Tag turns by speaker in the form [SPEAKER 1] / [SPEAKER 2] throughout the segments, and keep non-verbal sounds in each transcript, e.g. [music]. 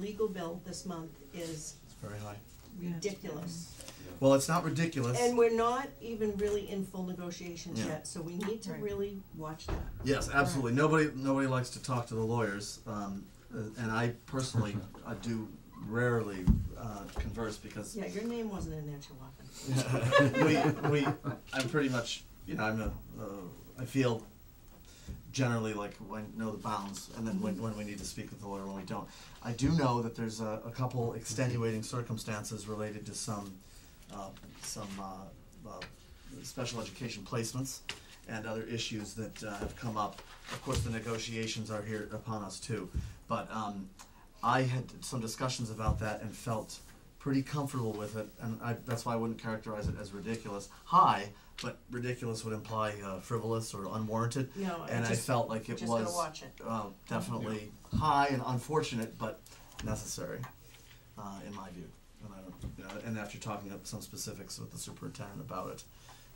[SPEAKER 1] legal bill this month is
[SPEAKER 2] It's very high.
[SPEAKER 3] Yeah.
[SPEAKER 1] ridiculous.
[SPEAKER 2] Well, it's not ridiculous.
[SPEAKER 1] And we're not even really in full negotiations
[SPEAKER 2] Yeah.
[SPEAKER 1] yet, so we need to
[SPEAKER 3] Right.
[SPEAKER 1] really watch that.
[SPEAKER 2] yes, absolutely. Nobody, nobody likes to talk to the lawyers, um, uh, and I
[SPEAKER 1] [laughs]
[SPEAKER 2] personally, I do rarely uh, converse because
[SPEAKER 1] Yeah, your name wasn't in there too often.
[SPEAKER 2] [laughs]
[SPEAKER 1] [laughs]
[SPEAKER 2] we, [laughs] we, I'm pretty much, you know, I'm a, uh, I feel generally like I know the bounds, and then when, when we need to speak with the lawyer, when we don't. I do know that there's a, a couple extenuating circumstances related to some, uh, some, uh, uh, special education placements and other issues that, uh, have come up. Of course, the negotiations are here upon us too, but, um, I had some discussions about that and felt pretty comfortable with it, and I, that's why I wouldn't characterize it as ridiculous. High, but ridiculous would imply uh, frivolous or unwarranted.
[SPEAKER 1] No, I
[SPEAKER 2] and I
[SPEAKER 1] just-
[SPEAKER 2] felt like it
[SPEAKER 1] Just
[SPEAKER 2] was
[SPEAKER 1] gotta watch it.
[SPEAKER 2] uh, definitely high and unfortunate, but necessary, uh, in my view. And I don't, you know, and after talking up some specifics with the superintendent about it,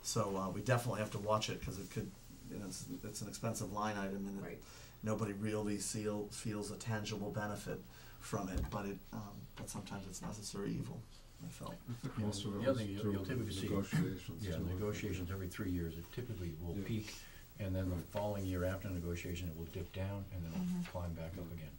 [SPEAKER 2] so uh, we definitely have to watch it because it could, you know, it's, it's an expensive line item and it,
[SPEAKER 1] Right.
[SPEAKER 2] nobody really seal, feels a tangible benefit from it, but it, um, but sometimes it's necessary evil. I felt.
[SPEAKER 4] Most of
[SPEAKER 5] The
[SPEAKER 4] it
[SPEAKER 5] other
[SPEAKER 4] was
[SPEAKER 5] thing
[SPEAKER 4] through
[SPEAKER 5] you'll typically see-
[SPEAKER 4] negotiations.
[SPEAKER 5] Yeah,
[SPEAKER 4] too.
[SPEAKER 5] negotiations every three years, it typically will
[SPEAKER 4] Yeah.
[SPEAKER 5] peak, and then the following year after negotiation, it will dip down, and then it'll climb back up again.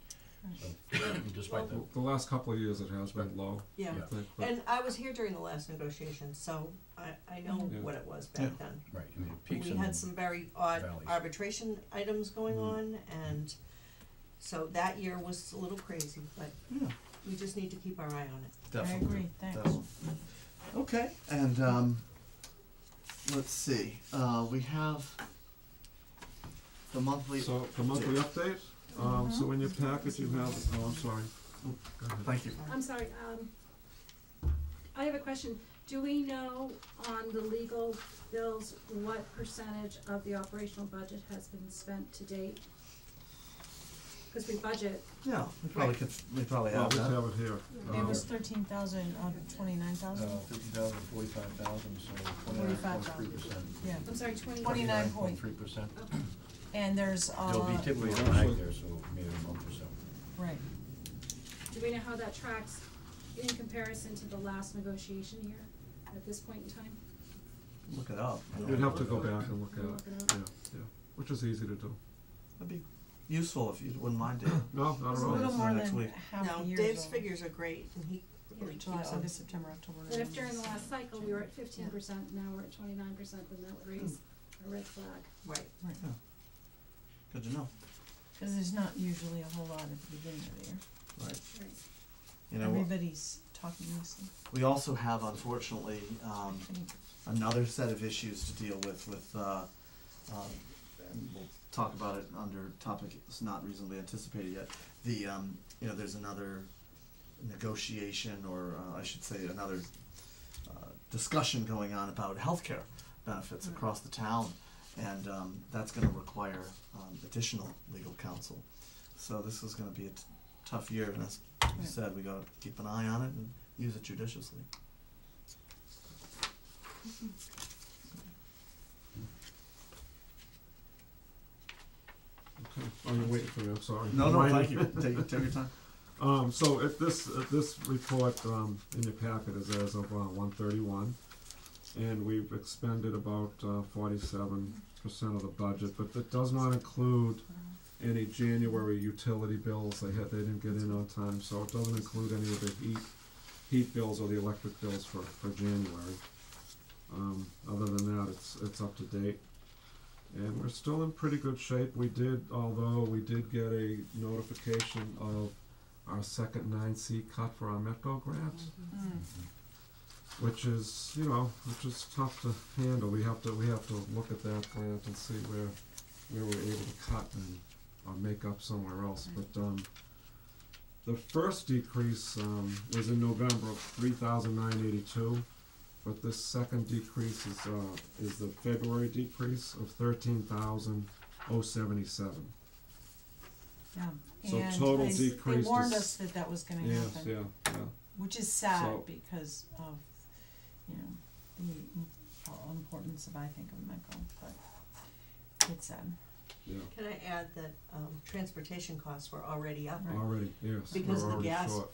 [SPEAKER 5] So, [coughs] Despite that,
[SPEAKER 4] The- The last couple of years it has been low,
[SPEAKER 1] Yeah,
[SPEAKER 4] I
[SPEAKER 5] Yeah.
[SPEAKER 4] think, but
[SPEAKER 1] and I was here during the last negotiation, so I, I know
[SPEAKER 3] Mm-hmm.
[SPEAKER 4] Yeah.
[SPEAKER 1] what it was back then.
[SPEAKER 5] right, I mean, it peaks
[SPEAKER 1] We
[SPEAKER 5] and
[SPEAKER 1] had
[SPEAKER 5] then,
[SPEAKER 1] some very odd
[SPEAKER 5] valleys.
[SPEAKER 1] arbitration items going
[SPEAKER 2] Mhm.
[SPEAKER 1] on, and so that year was a little crazy, but
[SPEAKER 2] Yeah,
[SPEAKER 1] we just need to keep our eye on it.
[SPEAKER 3] I
[SPEAKER 2] definitely.
[SPEAKER 3] agree, thanks.
[SPEAKER 2] Definitely. Okay, and um, let's see. Uh, we have the monthly.
[SPEAKER 4] so the monthly update, um, so in your packet you have, oh, I'm sorry. Oh, go ahead.
[SPEAKER 2] Thank you.
[SPEAKER 6] I'm sorry, um, I have a question. Do we know on the legal bills, what percentage of the operational budget has been spent to date? Cause we budget,
[SPEAKER 2] Yeah, we probably could. We probably
[SPEAKER 4] Well,
[SPEAKER 2] have
[SPEAKER 4] we
[SPEAKER 2] that.
[SPEAKER 4] have it here.
[SPEAKER 3] It
[SPEAKER 4] Um,
[SPEAKER 3] was thirteen thousand, uh, twenty-nine
[SPEAKER 5] uh,
[SPEAKER 3] thousand,
[SPEAKER 5] fifty thousand, forty-five thousand, so twenty-nine point three
[SPEAKER 3] 45,000,
[SPEAKER 5] percent.
[SPEAKER 3] yeah,
[SPEAKER 6] I'm sorry, twenty.
[SPEAKER 3] Twenty- 29
[SPEAKER 5] point three percent.
[SPEAKER 6] Okay.
[SPEAKER 3] and there's, uh,
[SPEAKER 5] There'll be typically a
[SPEAKER 4] Actually-
[SPEAKER 5] lag there, so maybe a month or so.
[SPEAKER 3] right,
[SPEAKER 6] Do we know how that tracks in comparison to the last negotiation year at this point in time?
[SPEAKER 2] Look it up. I don't
[SPEAKER 4] You'd have
[SPEAKER 2] know.
[SPEAKER 4] to go back and look at
[SPEAKER 6] Look
[SPEAKER 4] it,
[SPEAKER 6] it
[SPEAKER 4] yeah, yeah, which is easy to do.
[SPEAKER 2] That'd be useful if you wouldn't mind it.
[SPEAKER 4] No, not
[SPEAKER 3] it's a
[SPEAKER 4] at
[SPEAKER 2] Well,
[SPEAKER 4] all.
[SPEAKER 3] little
[SPEAKER 2] that's
[SPEAKER 3] more
[SPEAKER 2] next
[SPEAKER 3] than
[SPEAKER 2] week.
[SPEAKER 3] half
[SPEAKER 1] Now,
[SPEAKER 3] a year's
[SPEAKER 1] Dave's
[SPEAKER 3] old.
[SPEAKER 1] figures are great, and he really keeps
[SPEAKER 3] July,
[SPEAKER 1] them.
[SPEAKER 3] August, September, October,
[SPEAKER 6] That if
[SPEAKER 3] November,
[SPEAKER 6] during the last cycle, we were at fifteen
[SPEAKER 3] Yeah.
[SPEAKER 6] percent, now we're at twenty-nine percent, then that would raise a red flag.
[SPEAKER 1] Right.
[SPEAKER 3] Right,
[SPEAKER 2] Good to know.
[SPEAKER 3] cause there's not usually a whole lot at the beginning of the year,
[SPEAKER 2] Right.
[SPEAKER 6] Right.
[SPEAKER 2] You know,
[SPEAKER 3] everybody's talking mostly,
[SPEAKER 2] we also have unfortunately um,
[SPEAKER 3] I think,
[SPEAKER 2] another set of issues to deal with with. Uh, um, and we'll talk about it under topic it's not reasonably anticipated yet. The um, you know there's another negotiation or uh, I should say another uh, discussion going on about healthcare benefits
[SPEAKER 1] Mm.
[SPEAKER 2] across the town, and um, that's going to require um, additional legal counsel. So this is going to be a t- tough year, and as you
[SPEAKER 3] Right.
[SPEAKER 2] said, we got to keep an eye on it and use it judiciously.
[SPEAKER 4] Okay. Oh, you're waiting for me, I'm sorry.
[SPEAKER 2] No, no,
[SPEAKER 4] Mine-
[SPEAKER 2] thank you. [laughs] Take, take your time.
[SPEAKER 4] Um, so if this, if this report, um, in your packet is as of, uh, one thirty-one, and we've expended about, uh, forty-seven percent of the budget, but that does not include
[SPEAKER 3] uh,
[SPEAKER 4] any January utility bills, they had, they didn't get in on time, so it doesn't include any of the heat, heat bills or the electric bills for, for January. Um, other than that, it's, it's up to date. And we're still in pretty good shape, we did, although we did get a notification of our second nine C cut for our MEPCO grant,
[SPEAKER 3] mm,
[SPEAKER 4] which is, you know, which is tough to handle, we have to, we have to look at that grant and see where, where we're able to cut and, or make up somewhere else, but, um, the first decrease, um, was in November of three thousand nine eighty-two, but this second decrease is, uh, is the February decrease of thirteen thousand oh seventy-seven.
[SPEAKER 3] yeah,
[SPEAKER 4] So
[SPEAKER 3] and
[SPEAKER 4] total
[SPEAKER 3] they s- they
[SPEAKER 4] decrease
[SPEAKER 3] warned
[SPEAKER 4] is-
[SPEAKER 3] us that that was gonna happen.
[SPEAKER 4] Yes, yeah, yeah.
[SPEAKER 3] Which is sad
[SPEAKER 4] So-
[SPEAKER 3] because of, you know, the im- uh, importance of, I think, of Michael, but it's sad.
[SPEAKER 4] yeah,
[SPEAKER 1] Can I add that, um, transportation costs were already up?
[SPEAKER 3] Right.
[SPEAKER 4] already, yes, we're
[SPEAKER 1] Because the
[SPEAKER 4] already
[SPEAKER 1] gas
[SPEAKER 4] short.